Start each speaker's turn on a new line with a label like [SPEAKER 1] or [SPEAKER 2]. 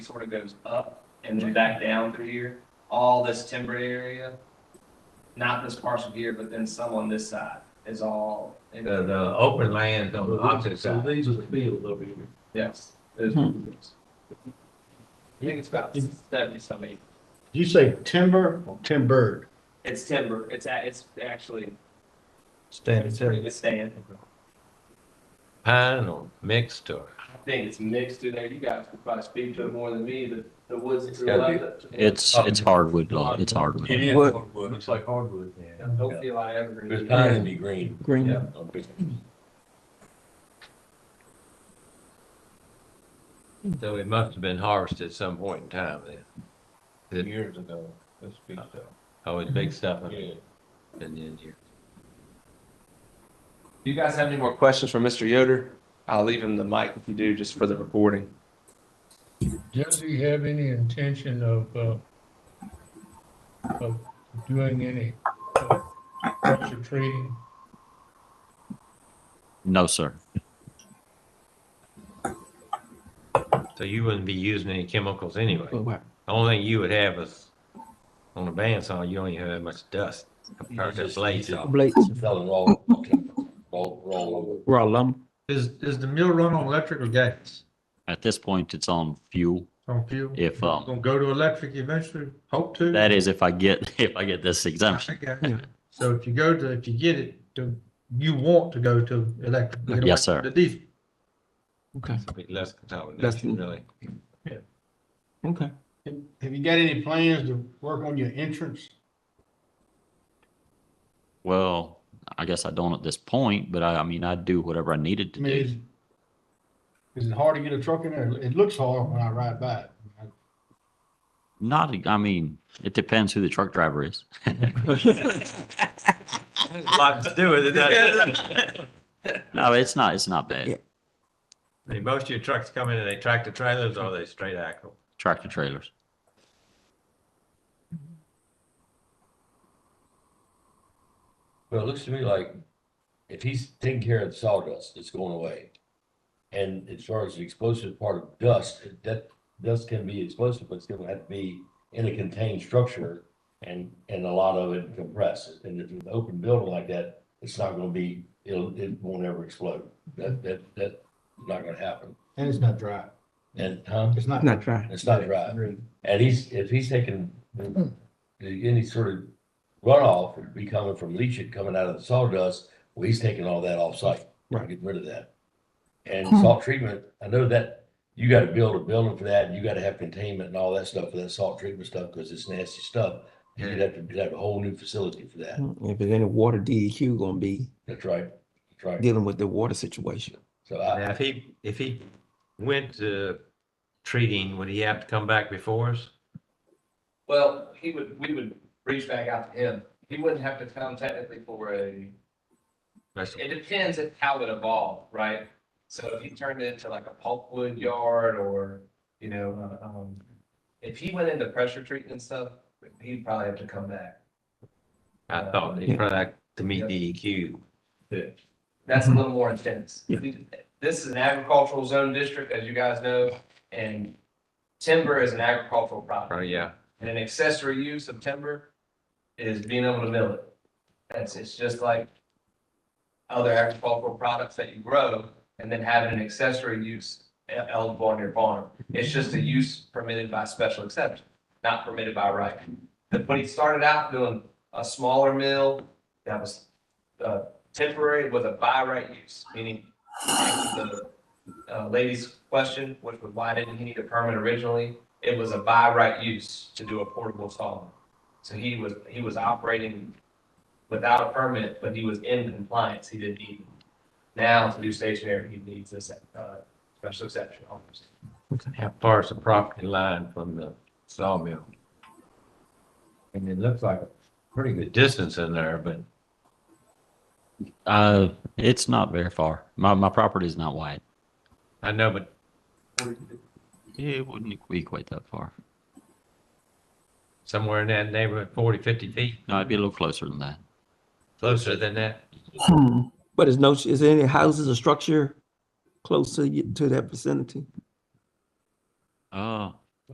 [SPEAKER 1] sort of goes up and then back down through here, all this timber area, not this parcel here, but then some on this side is all,
[SPEAKER 2] The, the open lands on the opposite
[SPEAKER 3] So
[SPEAKER 2] side.
[SPEAKER 3] these are the fields over here.
[SPEAKER 1] yes. is-
[SPEAKER 4] Hmm.
[SPEAKER 1] I think it's about seventy some acres.
[SPEAKER 4] Did you say timber or timbered?
[SPEAKER 1] It's timber, it's, a- it's actually,
[SPEAKER 2] Stand
[SPEAKER 1] it's pretty good stand.
[SPEAKER 2] Pine or mixed or?
[SPEAKER 1] I think it's mixed through there, you guys could probably speak to it more than me, the, the woods. that grew
[SPEAKER 2] gotta be-
[SPEAKER 1] up.
[SPEAKER 5] It's, it's hardwood, law. it's hardwood.
[SPEAKER 6] It is
[SPEAKER 7] What-
[SPEAKER 6] hardwood.
[SPEAKER 3] Looks like hardwood.
[SPEAKER 1] Don't feel I ever.
[SPEAKER 6] It's time to be green.
[SPEAKER 7] Green.
[SPEAKER 2] So it must have been harvested at some point in time then. It-
[SPEAKER 6] Years ago, that's big stuff.
[SPEAKER 2] Oh, it's big stuff. up
[SPEAKER 6] Yeah.
[SPEAKER 2] in the end here.
[SPEAKER 1] Do you guys have any more questions for Mr. Yoder? I'll leave him the mic if you do, just for the recording.
[SPEAKER 8] Does he have any intention of, uh, of doing any, uh, pressure treating?
[SPEAKER 5] No, sir.
[SPEAKER 2] So you wouldn't be using any chemicals anyway.
[SPEAKER 7] Well, wow.
[SPEAKER 2] The only thing you would have is, on a bandsaw, you don't even have that much dust compared to
[SPEAKER 6] It's just-
[SPEAKER 2] blades.
[SPEAKER 6] it's all
[SPEAKER 7] Blades.
[SPEAKER 6] Selling raw, raw, raw lumber.
[SPEAKER 7] Raw lumber.
[SPEAKER 3] Is, is the mill run on electric or gas?
[SPEAKER 5] At this point, it's on fuel.
[SPEAKER 3] On fuel?
[SPEAKER 5] If, um,
[SPEAKER 3] Gonna go to electric eventually, hope to?
[SPEAKER 5] that is if I get, if I get this exemption.
[SPEAKER 3] I got you. So if you go to, if you get it, to- you want to go to electric? you don't
[SPEAKER 5] Yes,
[SPEAKER 3] like
[SPEAKER 5] sir.
[SPEAKER 3] The diesel?
[SPEAKER 7] Okay,
[SPEAKER 2] It'd be Less
[SPEAKER 7] Less
[SPEAKER 2] contamination,
[SPEAKER 7] than-
[SPEAKER 2] really.
[SPEAKER 7] okay.
[SPEAKER 4] Have you got any plans to work on your entrance?
[SPEAKER 5] Well, I guess I don't at this point, but I, I mean, I do whatever I needed
[SPEAKER 4] I
[SPEAKER 5] to
[SPEAKER 4] mean,
[SPEAKER 5] do.
[SPEAKER 4] is, is it hard to get a truck in there? It looks hard when I ride by it.
[SPEAKER 5] Not, I mean, it depends who the truck driver is.
[SPEAKER 2] A Lot to do with it, doesn't it?
[SPEAKER 5] No, it's not, it's not bad.
[SPEAKER 2] I mean, most of your trucks come in and they tractor trailers or they straight axle.
[SPEAKER 5] Tractor trailers.
[SPEAKER 6] Well, it looks to me like if he's taking care of the sawdust, it's going away. And as far as the explosive part of dust, that dust can be explosive, but it's gonna have to be in a contained structure and, and a lot of it compressed. And if it's an open building like that, it's not gonna be, it'll, it won't ever explode. That, that, that's not gonna happen.
[SPEAKER 4] And it's not dry.
[SPEAKER 6] And, huh?
[SPEAKER 4] It's not.
[SPEAKER 7] Not dry.
[SPEAKER 6] It's not dry. And he's, if he's taking the- any sort of runoff, it'd be coming from leachate coming out of the sawdust, well, he's taking all that off site.
[SPEAKER 7] Right.
[SPEAKER 6] Getting rid of that. And salt treatment, I know that you gotta build a building for that, and you gotta have containment and all that stuff for that salt treatment stuff, because it's nasty stuff. And You'd have to, you'd have a whole new facility for that.
[SPEAKER 7] If there's any water, DEQ gonna be
[SPEAKER 6] That's right. That's right.
[SPEAKER 7] dealing with the water situation.
[SPEAKER 6] So I,
[SPEAKER 2] Now, if he, if he went to treating, would he have to come back before us?
[SPEAKER 1] Well, he would, we would reach back out to him. He wouldn't have to come technically for a,
[SPEAKER 2] That's-
[SPEAKER 1] it depends at how it evolved, right? So if he turned it into like a pulpwood yard or, you know, uh, um, if he went into pressure treatment and stuff, he'd probably have to come back.
[SPEAKER 2] I thought he probably had to meet E DEQ.
[SPEAKER 1] That's a little more intense.
[SPEAKER 7] Yeah.
[SPEAKER 1] This is an agricultural zone district, as you guys know, and timber is an agricultural property.
[SPEAKER 2] Right, Oh, yeah.
[SPEAKER 1] And an accessory use of timber is being able to mill it. That's, it's just like other agricultural products that you grow and then having an accessory use eligible on your farm. It's just a use permitted by special exception, not permitted by right. But When he started out doing a smaller mill that was uh, temporary with a by right use, meaning the uh, lady's question, which was why didn't he need a permit originally? it was a by right use to do a portable saw. So he was, he was operating without a permit, but he was in compliance, he didn't need. it. Now to do stationary, he needs this, uh, special exception almost.
[SPEAKER 2] How far is the property line from the sawmill? And it looks like a pretty good distance in there, but
[SPEAKER 5] Uh, it's not very far. My, my property is not wide.
[SPEAKER 2] I know, but
[SPEAKER 5] It wouldn't be quite that far.
[SPEAKER 2] somewhere in that neighborhood, 40, 50 feet,
[SPEAKER 5] No, it'd be a little closer than that.
[SPEAKER 2] closer than that.
[SPEAKER 7] But is no, is there any houses or structure close to, y- to that vicinity?
[SPEAKER 5] Uh,